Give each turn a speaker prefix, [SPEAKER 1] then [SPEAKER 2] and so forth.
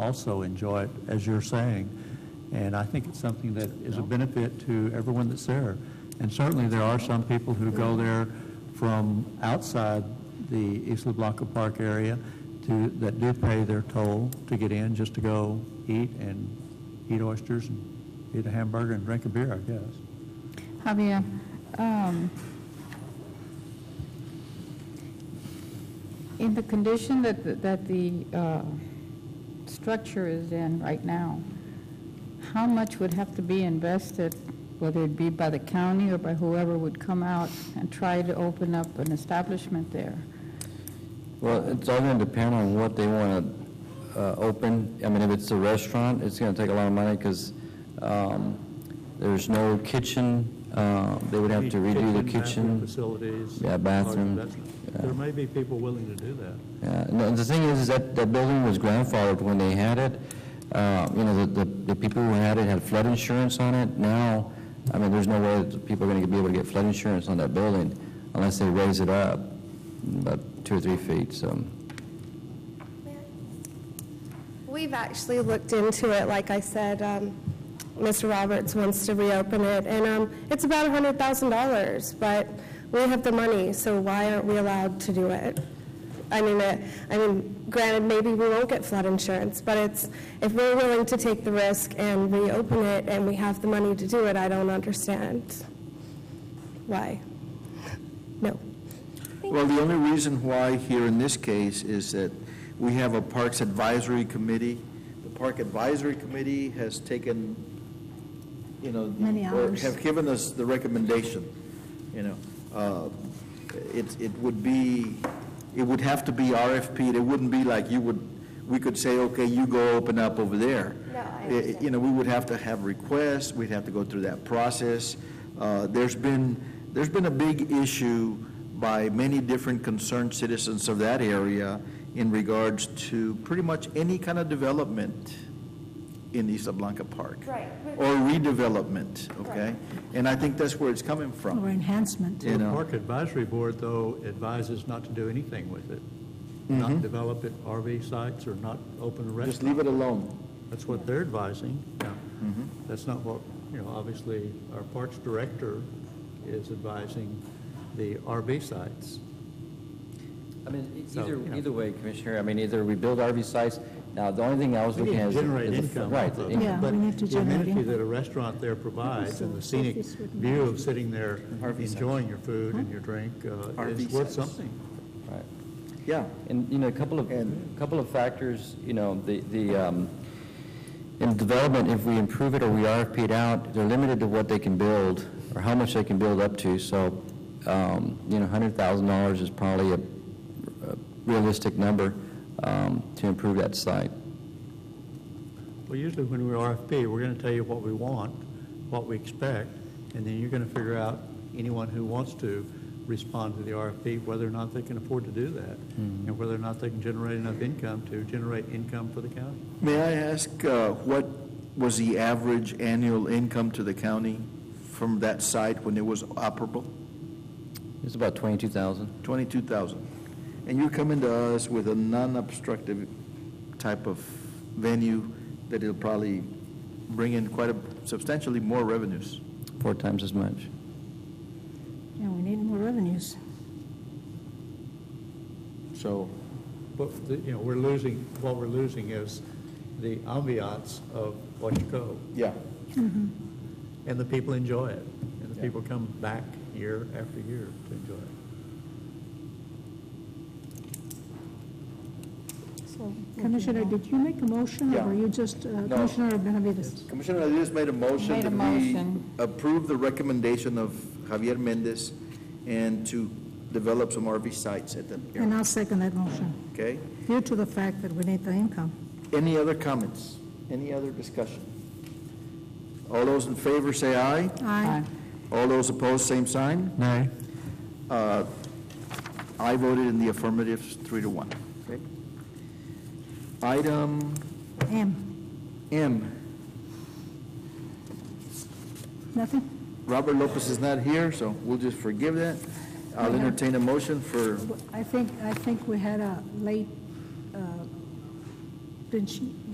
[SPEAKER 1] also enjoy it, as you're saying. And I think it's something that is a benefit to everyone that's there. And certainly, there are some people who go there from outside the Isla Blanca Park area to, that do pay their toll to get in, just to go eat and eat oysters and eat a hamburger and drink a beer, I guess.
[SPEAKER 2] Javier, um, in the condition that, the- that the uh, structure is in right now, how much would have to be invested, whether it be by the county or by whoever would come out and try to open up an establishment there?
[SPEAKER 3] Well, it's all going to depend on what they want to open. I mean, if it's a restaurant, it's going to take a lot of money because there's no kitchen. Uh, They would have to redo the
[SPEAKER 4] bathroom
[SPEAKER 3] kitchen.
[SPEAKER 4] Facilities.
[SPEAKER 3] Yeah, bathroom,
[SPEAKER 4] large
[SPEAKER 3] yeah.
[SPEAKER 4] There may be people willing to do that.
[SPEAKER 3] Yeah, and the- the thing is, is that that building was grandfathered when they had it. Uh, You know, the- the the people who had it had flood insurance on it. Now, I mean, there's no way that the people are going to be able to get flood insurance on that building unless they raise it up about two or three feet, so.
[SPEAKER 5] We've actually looked into it, like I said, um, Mr. Roberts wants to reopen it, and um, it's about $100,000, but we have the money, so why aren't we allowed to do it? I mean, it- I mean, granted, maybe we won't get flood insurance, but it's, if we're willing to take the risk and reopen it, and we have the money to do it, I don't understand why. No.
[SPEAKER 6] Well, the only reason why here in this case is that we have a Parks Advisory Committee. The Park Advisory Committee has taken, you know,
[SPEAKER 7] Many
[SPEAKER 6] or
[SPEAKER 7] hours.
[SPEAKER 6] have given us the recommendation, you know. Uh, It, it would be, it would have to be RFP. It wouldn't be like you would, we could say, okay, you go open up over there.
[SPEAKER 5] No, I
[SPEAKER 6] It-
[SPEAKER 5] understand.
[SPEAKER 6] You know, we would have to have requests, we'd have to go through that process. Uh, There's been, there's been a big issue by many different concerned citizens of that area in regards to pretty much any kind of development in Isla Blanca Park.
[SPEAKER 5] Right.
[SPEAKER 6] Or redevelopment, okay? And I think that's where it's coming
[SPEAKER 7] Or
[SPEAKER 6] from,
[SPEAKER 7] enhancement.
[SPEAKER 6] you
[SPEAKER 4] The
[SPEAKER 6] know?
[SPEAKER 4] Park Advisory Board, though, advises not to do anything with it. Not develop it RV sites or not open a
[SPEAKER 6] Mm-hmm. Just
[SPEAKER 4] restaurant.
[SPEAKER 6] leave Mm-hmm. it alone.
[SPEAKER 4] That's what they're advising. Now, That's not what, you know, obviously, our Parks Director is advising the RV sites.
[SPEAKER 3] I mean, e-,
[SPEAKER 4] So,
[SPEAKER 3] either,
[SPEAKER 4] you know.
[SPEAKER 3] either way, Commissioner, I mean, either we build RV sites, now, the only thing I was
[SPEAKER 4] We
[SPEAKER 3] looking
[SPEAKER 4] need
[SPEAKER 3] at
[SPEAKER 4] to
[SPEAKER 3] is...
[SPEAKER 4] generate
[SPEAKER 3] is the-
[SPEAKER 4] income.
[SPEAKER 3] Right.
[SPEAKER 4] off of
[SPEAKER 3] the
[SPEAKER 4] it,
[SPEAKER 3] income.
[SPEAKER 7] Yeah, we need to
[SPEAKER 4] But
[SPEAKER 7] generate
[SPEAKER 4] the amenity
[SPEAKER 7] income.
[SPEAKER 4] that a restaurant there provides and the scenic
[SPEAKER 7] Office would be-
[SPEAKER 4] view of sitting there
[SPEAKER 6] Harvey sites.
[SPEAKER 4] enjoying your food and your drink uh,
[SPEAKER 6] Harvey
[SPEAKER 4] is worth
[SPEAKER 6] sites.
[SPEAKER 4] something.
[SPEAKER 3] Right.
[SPEAKER 6] Yeah.
[SPEAKER 3] And, you know, a couple of,
[SPEAKER 6] And-
[SPEAKER 3] couple of factors, you know, the, the, um, in development, if we improve it or we RFP it out, they're limited to what they can build or how much they can build up to. So, um, you know, $100,000 is probably a a realistic number um, to improve that site.
[SPEAKER 4] Well, usually when we RFP, we're going to tell you what we want, what we expect, and then you're going to figure out, anyone who wants to respond to the RFP, whether or not they can afford to do that,
[SPEAKER 3] Hmm.
[SPEAKER 4] and whether or not they can generate enough income to generate income for the county.
[SPEAKER 6] May I ask, uh, what was the average annual income to the county from that site when it was operable?
[SPEAKER 3] It's about 22,000.
[SPEAKER 6] 22,000. And you're coming to us with a non-obstructive type of venue that will probably bring in quite a substantially more revenues.
[SPEAKER 3] four times as much.
[SPEAKER 7] Yeah, we need more revenues.
[SPEAKER 6] So,
[SPEAKER 4] But, the- you know, we're losing, what we're losing is the ambiance of Washington,
[SPEAKER 6] yeah.
[SPEAKER 4] and the people enjoy it, and the people come back year after year to enjoy it.
[SPEAKER 7] Commissioner, did you make a motion, or
[SPEAKER 6] Yeah.
[SPEAKER 7] were you just, uh,
[SPEAKER 6] No.
[SPEAKER 7] Commissioner Benavides?
[SPEAKER 6] Commissioner Adelis made a motion
[SPEAKER 2] Made a
[SPEAKER 6] that we
[SPEAKER 2] motion.
[SPEAKER 6] approve the recommendation of Javier Mendez and to develop some RV sites at that
[SPEAKER 7] And
[SPEAKER 6] area,
[SPEAKER 7] I'll second that motion,
[SPEAKER 6] okay?
[SPEAKER 7] due to the fact that we need the income.
[SPEAKER 6] Any other comments? Any other discussion? All those in favor say aye.
[SPEAKER 7] Aye.
[SPEAKER 6] All those opposed, same sign.
[SPEAKER 1] Nay.
[SPEAKER 6] Uh, I voted in the affirmative, three to one. Okay. Item
[SPEAKER 7] M,
[SPEAKER 6] M,
[SPEAKER 7] nothing?
[SPEAKER 6] Robert Lopez is not here, so we'll just forgive that. I'll entertain a motion for,
[SPEAKER 7] I think, I think we had a late, uh, didn't she-